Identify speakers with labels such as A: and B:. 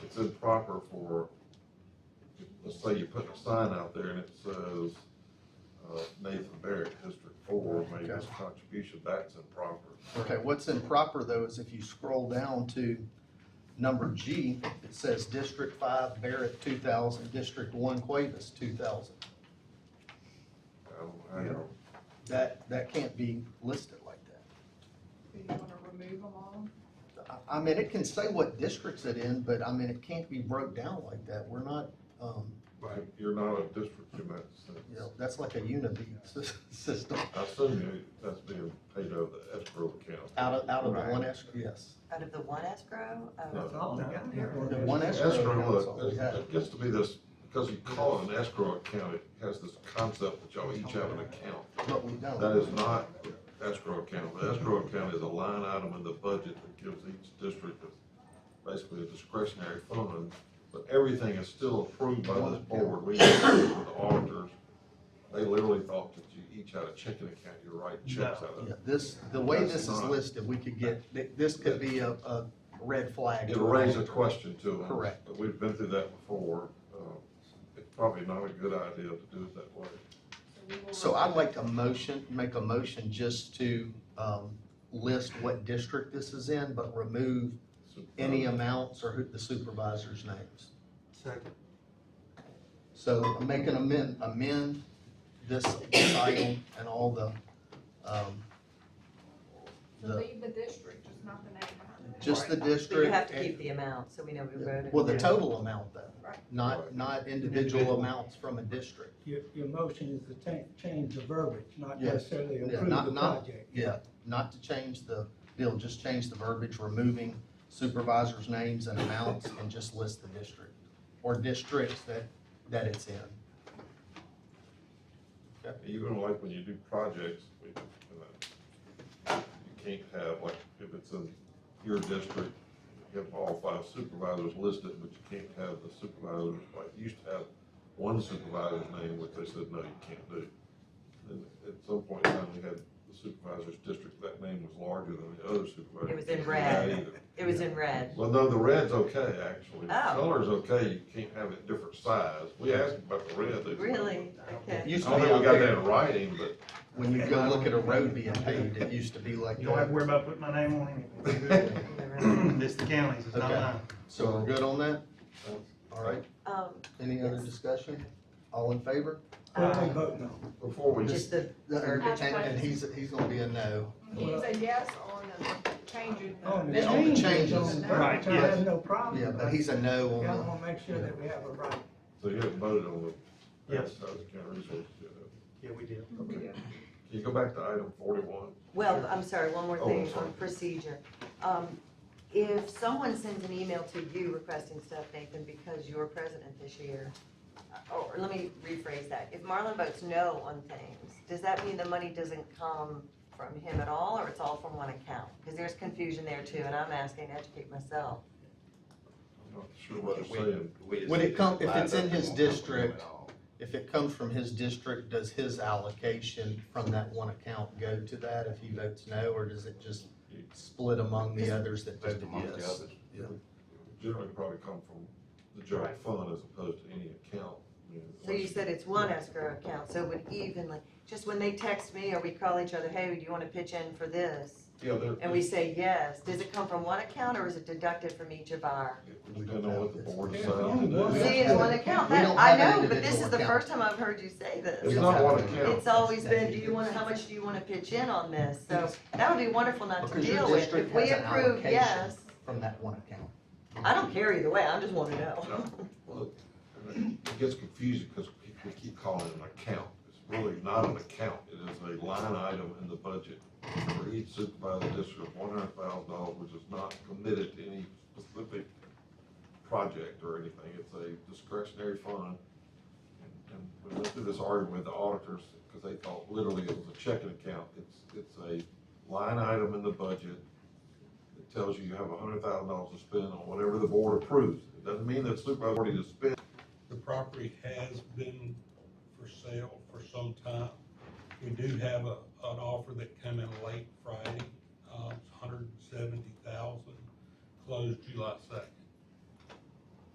A: it's improper for, let's say you put a sign out there and it says, uh, Nathan Barrett, District Four, made this contribution, that's improper.
B: Okay, what's improper though is if you scroll down to number G, it says District Five Barrett two thousand, District One Cuevas two thousand.
A: I don't know
B: That, that can't be listed like that.
C: You want to remove them all?
B: I, I mean, it can say what districts it in, but I mean, it can't be broke down like that. We're not, um,
A: how, you're not a district in that sense.
B: you know, that's like a unity sys- system
A: I assume you- that's being paid out of the escrow account.
B: out of, out of the
D: Right.
B: one escrow, yes.
E: Out of the one escrow? Oh,
A: No.
D: all they got there.
B: The one escrow
A: Escrow,
B: account's all
A: look,
B: we
A: it-
B: have.
A: it gets to be this, because you call it an escrow account, it has this concept that y'all each have an account.
B: But we don't.
A: That is not escrow account. The escrow account is a line item in the budget that gives each district a- basically a discretionary fund, but everything is still approved by this board. We, the auditors, they literally thought that you each had a checking account, you write checks out of.
B: Yeah, This, the way
A: That's
B: this is
A: not-
B: listed, we could get, th- this could be a, a red flag.
A: It'll raise a question to them.
B: Correct.
A: But we've been through that before. Uh, It's probably not a good idea to do it that way.
C: we will
B: So
C: remove-
B: I'd like to motion, make a motion just to, um, list what district this is in, but remove
A: So,
B: any
A: uh,
B: amounts or who- the supervisor's names.
D: Second.
B: So make an amend, amend this item and all the, um,
C: So leave the district, just not the name behind it.
B: just the
E: But you
B: district.
E: have to
B: and-
E: keep the amount, so we know we voted.
B: Well, the total amount though,
C: Right.
B: not,
A: Right.
B: not individual
D: Individual.
B: amounts from a district.
F: Your, your motion is to ta- change the verbiage, not
B: Yes.
F: necessarily
B: Yeah,
F: approve
B: not-
F: the
B: not-
F: project.
B: Yeah, not to change the bill, just change the verbiage, removing supervisors' names and amounts, and just list the district, or districts that, that it's in.
A: Even like when you do projects, we, you know, you can't have, like, if it's in your district, you have all five supervisors listed, but you can't have the supervisor, like, you used to have one supervisor's name, which they said, no, you can't do. And at some point in time, we had the supervisor's district, that name was larger than the other supervisor.
E: It was in
A: You can't do
E: red.
A: that either.
E: It was in red.
A: Well, no, the red's okay, actually. The
E: Oh.
A: Color's okay, you can't have it different size. We asked about the red. they-
E: Really?
B: It
E: Okay.
A: I
B: used to
A: don't
B: be
A: think
B: out
A: Oh, we got that
B: there,
A: in writing, but
B: when you go look at a road being paved, it used to be like
D: You don't have to
B: that.
D: worry about putting my name on
A: Okay.
D: it. This the county's, it's not
B: Okay.
D: mine.
B: So we're good on that? All right,
E: Um,
B: any other
E: Yes.
B: discussion? All in favor?
F: What are
E: um,
F: they voting on?
A: Before we just,
E: Just the,
B: And
E: verbiage.
B: and he's, he's gonna be a no.
C: It's a yes on the changing. the-
F: On
B: Yeah, on the changes.
F: on the
D: Oh, Right,
F: verbiage, I have no problem.
B: Yeah,
F: with
B: but
F: it.
B: he's a no
F: Um, Yeah, I
B: on
F: wanna make sure that we have a right.
A: so you haven't voted on the.
D: Yes.
A: South Carolina resources yet, have you?
D: Yeah, we did.
C: We do.
A: Can you go back to item forty-one?
E: well, I'm sorry, one more
A: Oh,
E: thing
A: sorry.
E: on procedure. Um, if someone sends an email to you requesting stuff, Nathan, because you're president this year, uh, or let me rephrase that, if Marlon votes no on things, does that mean the money doesn't come from him at all, or it's all from one account? Because there's confusion there too, and I'm asking to educate myself.
A: I'm not sure what you're saying.
B: it. When it come, if it's in his district, if it comes from his district, does his allocation from that one account go to that if he votes no? Or does it just split among the others that voted yes? Yeah.
A: Generally probably come from the general
D: Right.
A: fund as opposed to any account. I mean,
E: So you said it's one escrow account, so it would evenly, just when they text me or we call each other, hey, do you wanna pitch in for this?
A: Yeah, there,
E: And we say yes, does it come from one account or is it deducted from each of our?
A: depending on what the board
F: There's
A: decides to
F: only one.
A: do.
E: See, it's one account,
B: We
E: that,
B: don't
E: I
B: have an
E: know, but this
B: individual
E: is the
B: account.
E: first time I've heard you say
A: It's
E: this.
A: not one account.
E: It's always been, do you wanna, how much do you wanna pitch in on this? So that would be wonderful not to
B: Because your
E: deal with,
B: district
E: if we
B: has an
E: approve
B: allocation.
E: yes,
B: From that one account.
E: I don't care either way, I just wanna know.
A: No. Well, It gets confusing because we keep calling it an account. It's really not an account. It is a line item in the budget for each supervisor district, one hundred thousand dollars, which is not committed to any specific project or anything. It's a discretionary fund. And- And we went through this argument with the auditors because they thought literally it was a checking account. It's, it's a line item in the budget it tells you you have a hundred thousand dollars to spend on whatever the board approves. It doesn't mean that supervisor already to spend.
G: The property has been for sale for some time. We do have a, an offer that came in uh, late Friday, um, it's hundred and seventy thousand, closed July second.